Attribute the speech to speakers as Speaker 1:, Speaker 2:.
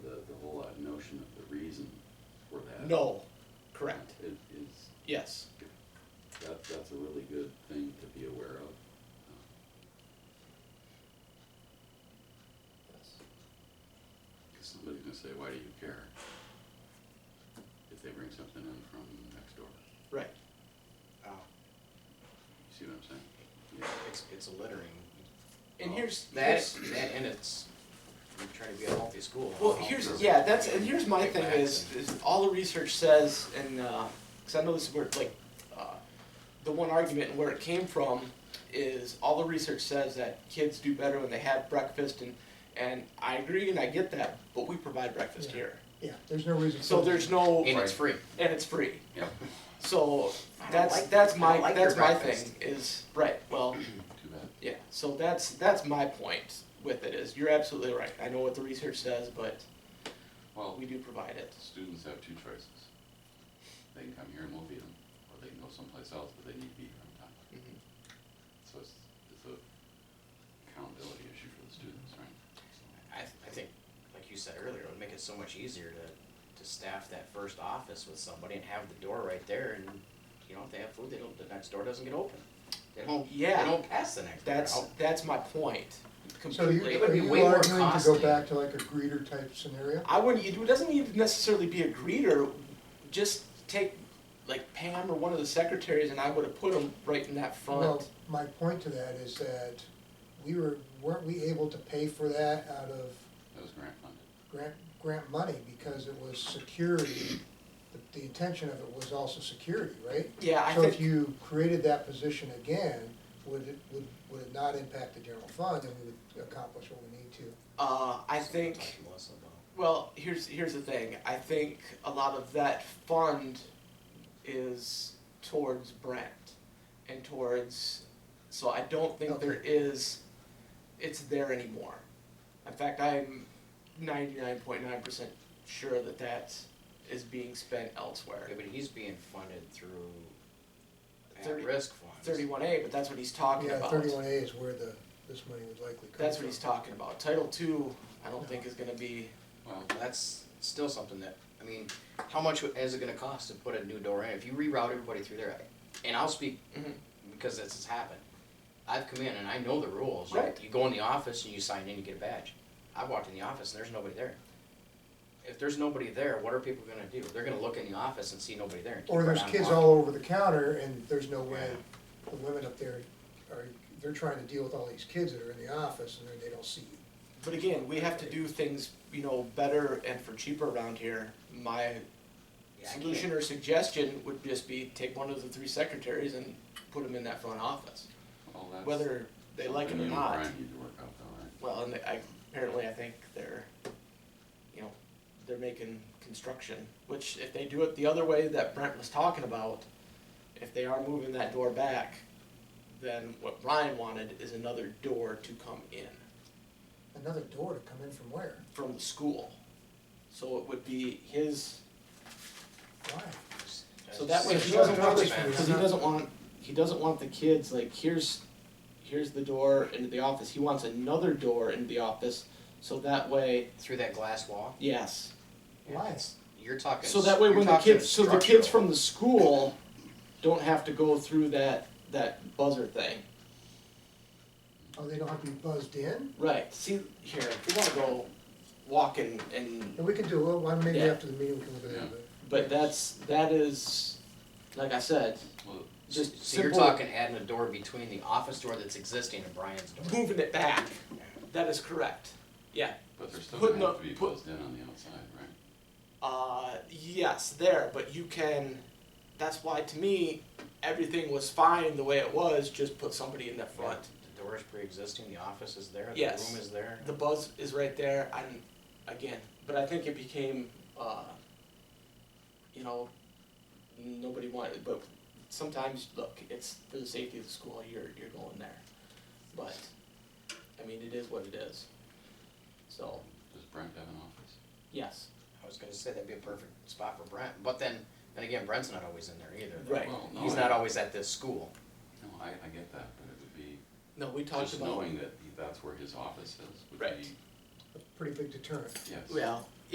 Speaker 1: No, correct,
Speaker 2: It is,
Speaker 1: yes.
Speaker 2: that, that's a really good thing to be aware of. Cause somebody's gonna say, why do you care? If they bring something in from next door,
Speaker 1: Right. Uh,
Speaker 2: you see what I'm saying? Yeah,
Speaker 3: It's, it's a littering.
Speaker 1: And
Speaker 4: Oh,
Speaker 3: Well,
Speaker 1: here's-
Speaker 3: That,
Speaker 1: here's-
Speaker 3: that and it's, we're trying to be a healthy school.
Speaker 1: Well, here's, yeah, that's, and here's my thing is, is all the research says, and, uh 'cause cause I know this is where, like, uh, the one argument and where it came from is all the research says that kids do better when they have breakfast and, and I agree and I get that, but we provide breakfast
Speaker 5: Yeah.
Speaker 1: here.
Speaker 5: Yeah, there's no reason.
Speaker 1: So
Speaker 5: for-
Speaker 1: there's no,
Speaker 3: And it's free.
Speaker 1: and it's free.
Speaker 2: yeah,
Speaker 1: So
Speaker 4: I don't
Speaker 1: that's,
Speaker 4: like-
Speaker 1: that's
Speaker 4: I
Speaker 1: my,
Speaker 4: don't like
Speaker 1: that's
Speaker 4: your
Speaker 1: my
Speaker 4: breakfast.
Speaker 1: thing is, right, well,
Speaker 2: too bad.
Speaker 1: yeah, so that's, that's my point with it is, you're absolutely right. I know what the research says, but
Speaker 2: Well,
Speaker 1: we do provide it.
Speaker 2: students have two choices. They can come here and we'll feed them, or they can go someplace else, but they need to be here on time.
Speaker 1: Mhm.
Speaker 5: Mm-hmm.
Speaker 2: So it's, it's a accountability issue for the students, right? So,
Speaker 3: I, I think, like you said earlier, it would make it so much easier to, to staff that first office with somebody and have the door right there and, you know, if they have food, they don't, the next door doesn't get open. They don't, they
Speaker 1: Yeah.
Speaker 3: don't pass the next door. Oh,
Speaker 1: That's,
Speaker 3: How-
Speaker 1: that's my point,
Speaker 5: So you,
Speaker 1: completely.
Speaker 3: It would
Speaker 5: are
Speaker 3: be way
Speaker 5: you
Speaker 3: more
Speaker 5: arguing to
Speaker 3: costly.
Speaker 5: go back to like a greeter type scenario?
Speaker 1: I wouldn't, it doesn't even necessarily be a greeter, just take like Pam or one of the secretaries and I would have put them right in that
Speaker 5: Well,
Speaker 1: front.
Speaker 5: my point to that is that we were, weren't we able to pay for that out of
Speaker 2: That was grant funded.
Speaker 5: grant, grant money because it was security? The- The intention of it was also security, right?
Speaker 1: Yeah, I
Speaker 5: So if
Speaker 1: think,
Speaker 5: you created that position again, would it, would, would it not impact the general fund and we would accomplish what we need to?
Speaker 1: uh, I
Speaker 3: So we'll
Speaker 1: think,
Speaker 3: talk to Melissa about-
Speaker 1: well, here's, here's the thing, I think a lot of that fund is towards Brent and towards, so I don't think there is, it's there anymore. In fact, I'm ninety-nine point nine percent sure that that is being spent elsewhere.
Speaker 3: Yeah, but he's being funded through
Speaker 1: Thirty-
Speaker 3: at-risk funds.
Speaker 1: Thirty-one A, but that's what he's talking
Speaker 5: Yeah,
Speaker 1: about.
Speaker 5: thirty-one A is where the, this money would likely come from.
Speaker 1: That's what he's talking about. Title two, I don't think is gonna be,
Speaker 2: Well,
Speaker 3: That's still something that, I mean, how much is it gonna cost to put a new door in? If you reroute everybody through there, and I'll speak
Speaker 5: Mm-hmm.
Speaker 1: Mhm.
Speaker 3: because this has happened. I've come in and I know the rules. You-
Speaker 1: Right.
Speaker 3: You go in the office and you sign in, you get a badge. I walked in the office and there's nobody there. If there's nobody there, what are people gonna do? They're gonna look in the office and see nobody there and keep
Speaker 5: Or
Speaker 3: right
Speaker 5: there's
Speaker 3: on
Speaker 5: kids
Speaker 3: walking.
Speaker 5: all over the counter and there's no way, the women up there are, they're trying to deal with all these kids that are in the office and then they don't see you.
Speaker 1: but again, we have to do things, you know, better and for cheaper around here. My
Speaker 3: Yeah, I
Speaker 1: solution
Speaker 3: can't-
Speaker 1: or suggestion would just be take one of the three secretaries and put them in that front office,
Speaker 2: well, that's.
Speaker 1: whether they like it
Speaker 2: something
Speaker 1: or
Speaker 2: you and
Speaker 1: not.
Speaker 2: Brian need to work out though, right?
Speaker 1: Well, and I, apparently I think they're, you know, they're making construction, which if they do it the other way that Brent was talking about, if they are moving that door back, then what Brian wanted is another door to come in
Speaker 5: Another door to come in from where?
Speaker 1: from the school. So it would be his,
Speaker 5: Why?
Speaker 1: so that way he
Speaker 5: So
Speaker 1: doesn't
Speaker 5: it's
Speaker 1: want,
Speaker 5: not
Speaker 1: the- cause he doesn't want, he doesn't want the kids, like, here's, here's the door into the office, he wants another door into the office, so that way,
Speaker 3: Through that glass wall,
Speaker 1: yes,
Speaker 5: Why?
Speaker 3: you're talking.
Speaker 1: So that way,
Speaker 3: you're
Speaker 1: when the
Speaker 3: talking
Speaker 1: kids, so the kids
Speaker 3: structural.
Speaker 1: from the school don't have to go through that, that buzzer thing.
Speaker 5: Oh, they don't have to be buzzed in?
Speaker 1: Right, see, here, if we wanna go walking and,
Speaker 5: And we can do, well, why maybe
Speaker 1: Yeah.
Speaker 5: after the meeting we can look at that, but.
Speaker 1: but that's, that is, like I said,
Speaker 2: Well,
Speaker 1: just
Speaker 3: So you're
Speaker 1: simple,
Speaker 3: talking adding a door between the office door that's existing and Brian's door.
Speaker 1: moving it back. That is correct. Yeah.
Speaker 2: but they're still
Speaker 1: Putting
Speaker 2: gonna have
Speaker 1: up-
Speaker 2: to be
Speaker 1: put-
Speaker 2: buzzed in on the outside, right?
Speaker 1: Uh, yes, there, but you can, that's why to me, everything was fine the way it was, just put somebody in the front.
Speaker 3: The door is pre-existing, the office is there, the
Speaker 1: Yes.
Speaker 3: room is there.
Speaker 1: The buzz is right there, and again, but I think it became, uh, you know, nobody wanted. But sometimes, look, it's for the safety of the school. You're you're going there, but I mean, it is what it is. So
Speaker 2: Does Brent have an office?
Speaker 1: yes,
Speaker 3: I was gonna say that'd be a perfect spot for Brent, but then, then again, Brent's not always in there either. though.
Speaker 1: Right.
Speaker 2: Well, no,
Speaker 3: He's
Speaker 2: I-
Speaker 3: not always at this school.
Speaker 2: No, I, I get that, but it would be,
Speaker 1: no, we talked
Speaker 2: just
Speaker 1: about
Speaker 2: knowing that he- that's where his office is would
Speaker 1: Right.
Speaker 2: be,
Speaker 5: A pretty big deterrent.
Speaker 2: yes.
Speaker 1: well,